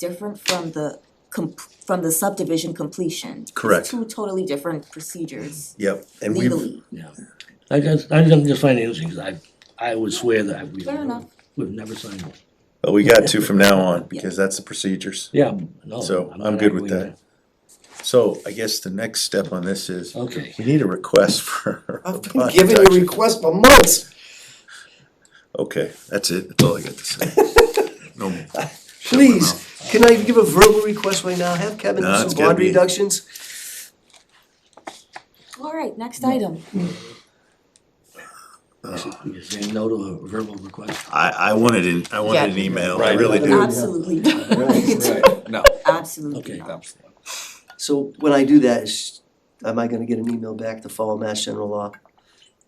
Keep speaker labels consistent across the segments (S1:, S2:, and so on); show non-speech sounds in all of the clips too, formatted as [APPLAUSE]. S1: different from the com- from the subdivision completion. It's
S2: Correct.
S1: Two totally different procedures
S2: Yep, and we've,
S1: legally.
S3: Yeah, I just, I just, I'm just finding this, because I, I would swear that I- we've.
S1: Fair enough.
S3: We've never signed one.
S2: but we got to from
S4: [LAUGHS]
S2: now on, because that's the procedures.
S3: Yeah, no.
S2: So, I'm
S3: not
S2: good with
S3: arguing
S2: that. So I guess the next step on this is,
S3: that. Okay,
S2: we need a request [LAUGHS] for.
S4: I've been giving you requests for months.
S2: Okay, that's it, that's all I got to say. No more.
S4: Please, can I give a verbal request right now? Have Kevin
S2: No,
S4: do
S2: it's
S4: some
S2: gotta
S4: bond
S2: be-
S4: reductions?
S1: Alright, next item.
S2: Uh.
S3: you're saying no to a verbal request?
S2: I, I wanted an, I wanted an
S1: Yeah.
S2: email, I
S5: Right.
S2: really do.
S1: Absolutely not, [LAUGHS]
S5: Right, no.
S1: absolutely
S3: Okay.
S2: um,
S1: not.
S4: So when I do that, is, am I gonna get an email back to follow Mass General Law?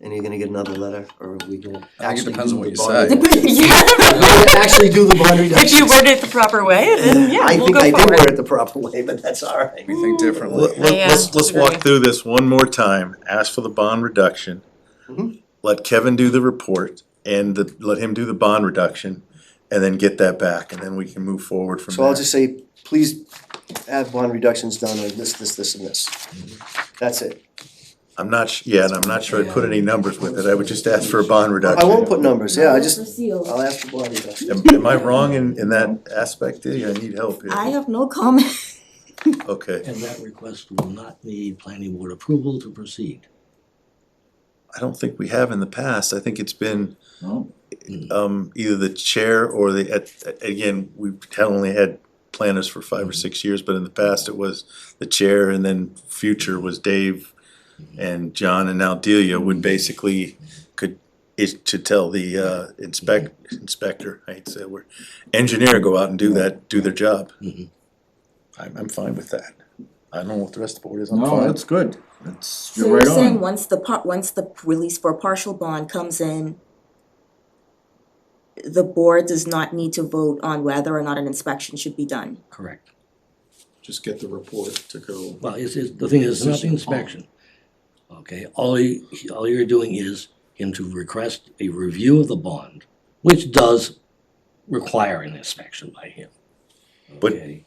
S4: And you're gonna get another letter, or are we gonna
S5: I think it
S4: actually
S5: depends on
S4: do
S5: what
S4: the
S5: you
S4: bond?
S5: say.
S1: [LAUGHS] Yeah,
S4: We're gonna Actually do the bond
S1: if you
S4: reductions.
S1: word it the proper way, then yeah,
S4: I
S1: we'll
S4: think
S1: go
S4: I did
S1: forward.
S4: word it the proper way, but that's all right.
S5: We think differently.
S2: Let, us
S4: uh,
S1: Yeah,
S2: let's walk
S1: agree.
S2: through this one more time, ask for the bond reduction.
S4: Mhm.
S2: Let Kevin do the report and the, let him do the bond reduction and then get that back and then we can move forward from
S4: So I'll
S2: there.
S4: just say, please have bond reductions done, or this, this, this, and this.
S5: Mm-hmm.
S4: That's it.
S2: I'm not, sh- yeah, and I'm not sure I put any numbers with it, I would just ask for a bond
S4: I
S2: reduction.
S4: won't put numbers, yeah, I just,
S1: Proceed.
S4: I'll ask for bond reductions.
S2: Am am I wrong in, in that aspect, Diddy? I need help
S1: I
S2: here,
S1: have no comment.
S2: okay,
S3: And that request will not need planning board approval to proceed.
S2: I don't think we have in the past, I think it's been,
S5: No. Mm.
S2: um, either the chair or the, at- at- again, we've had- only had planners for five or six years, but in the past it was the chair and then future was Dave and John and now Delia would basically could, is to tell the, uh, inspect, inspector, I hate to say the word, engineer, go out and do that, do their job.
S5: Mm-hmm.
S3: Mhm.
S2: I'm, I'm fine with that. I don't know what the rest of the board is, I'm
S5: No,
S2: fine.
S5: that's good. That's,
S1: So
S5: you're
S1: you're
S5: right
S1: saying
S5: on.
S1: once the par- once the release for partial bond comes in, the board does not need to vote on whether or not an inspection should be done.
S3: Correct.
S5: Just get the report to go.
S3: Well, it's, it's, the thing is, it's not the inspection. Okay, all you, all you're doing is him to request a review of the bond, which does require an inspection by him.
S2: But-
S3: Okay?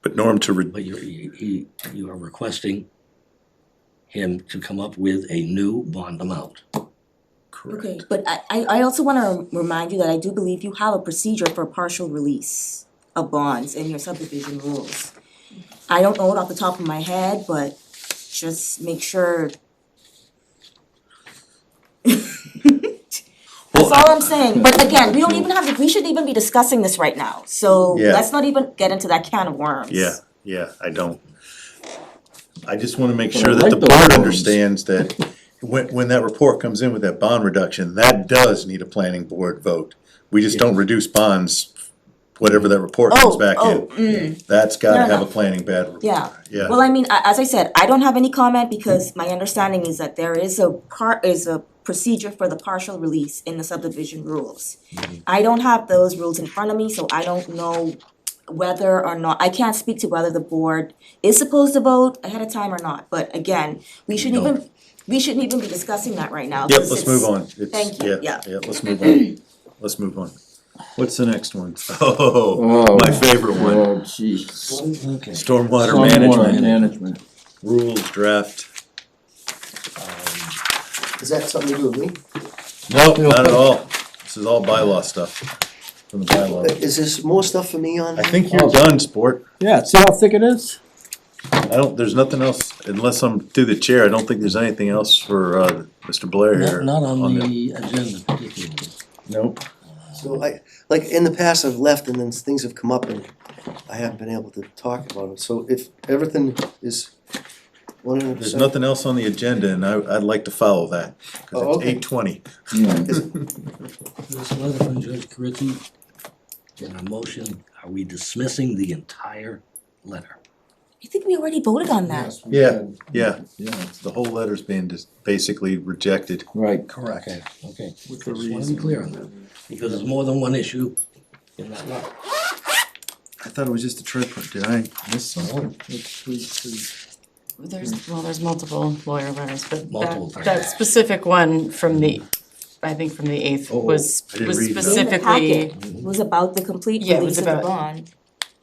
S2: But Norm, to, re-
S3: But you're, you, he- you are requesting him to come up with a new bond amount.
S1: Okay,
S2: correct,
S1: but I, I, I also wanna remind you that I do believe you have a procedure for partial release of bonds in your subdivision rules. I don't know it off the top of my head, but just make sure. [LAUGHS] That's all I'm saying, but again, we don't even have, to- we shouldn't even be discussing this right now, so
S2: Yeah.
S1: let's not even get into that can of worms.
S2: yeah, yeah, I don't. I just wanna make
S5: I
S2: sure that
S5: like
S2: the
S5: those
S2: board
S5: loans.
S2: understands that
S1: [LAUGHS]
S2: when, when that report comes in with that bond reduction, that does need a planning board vote. We just don't reduce bonds, whatever that report comes
S1: Oh,
S2: back
S1: oh,
S2: in.
S1: mm,
S2: That's gotta
S1: Fair
S2: have a
S1: enough.
S2: planning bad,
S1: yeah.
S2: yeah.
S1: Well, I mean, a- as I said, I don't have any comment because my understanding is that there is a par- is a procedure for the partial release in the subdivision rules.
S2: Mm-hmm.
S1: I don't have those rules in front of me, so I don't know whether or not, I can't speak to whether the board is supposed to vote ahead of time or not, but again, we shouldn't even, we shouldn't even be discussing that right now.
S2: Yep,
S1: 'cause
S2: let's
S1: it's-
S2: move on. It's-
S1: Thank you, yeah.
S2: Yeah, let's
S1: [LAUGHS]
S2: move on. Let's move on. [LAUGHS] What's the next one? Oh,
S5: Oh.
S2: my favorite one,
S5: Oh, jeez.
S3: Okay.
S2: stormwater
S5: Stormwater
S2: management,
S5: management.
S2: rules draft.
S4: Is that something to do with me?
S2: Nope, not at all. This is all bylaw stuff from the bylaw.
S4: Is this more stuff for me on?
S2: I think you're done, sport.
S6: Yeah, see how thick it is?
S2: I don't, there's nothing else, unless I'm through the chair, I don't think there's anything else for, uh, Mr. Blair here.
S3: Not, not on
S2: the-
S3: the agenda particularly.
S2: Nope.
S4: So I, like, in the past, I've left and then things have come up and I haven't been able to talk about it. So if everything is one hundred
S2: There's
S4: percent.
S2: nothing else on the agenda and I, I'd like to follow that,
S4: Oh,
S2: cause it's
S4: okay.
S2: eight twenty.
S5: Yeah.
S3: This letter from Judge Carriffy, in a motion, are we dismissing the entire letter?
S1: I think we already voted on that.
S5: Yes, we
S2: Yeah.
S5: did.
S2: Yeah,
S5: Yeah,
S2: the whole letter's being just basically rejected.
S5: right.
S3: Correct. Okay, okay. Just wanna be clear on that, because there's more than one issue in that letter.
S2: I thought it was just a trip, did I miss something?
S7: There's, well, there's multiple lawyer letters, but
S3: Multiple
S7: that, that specific one from the, I think from the eighth was,
S2: Oh, I didn't
S7: was
S2: read that.
S7: specifically.
S1: In the packet was about the complete
S7: Yeah, it
S1: release
S7: was
S1: of the
S7: about-
S1: bond.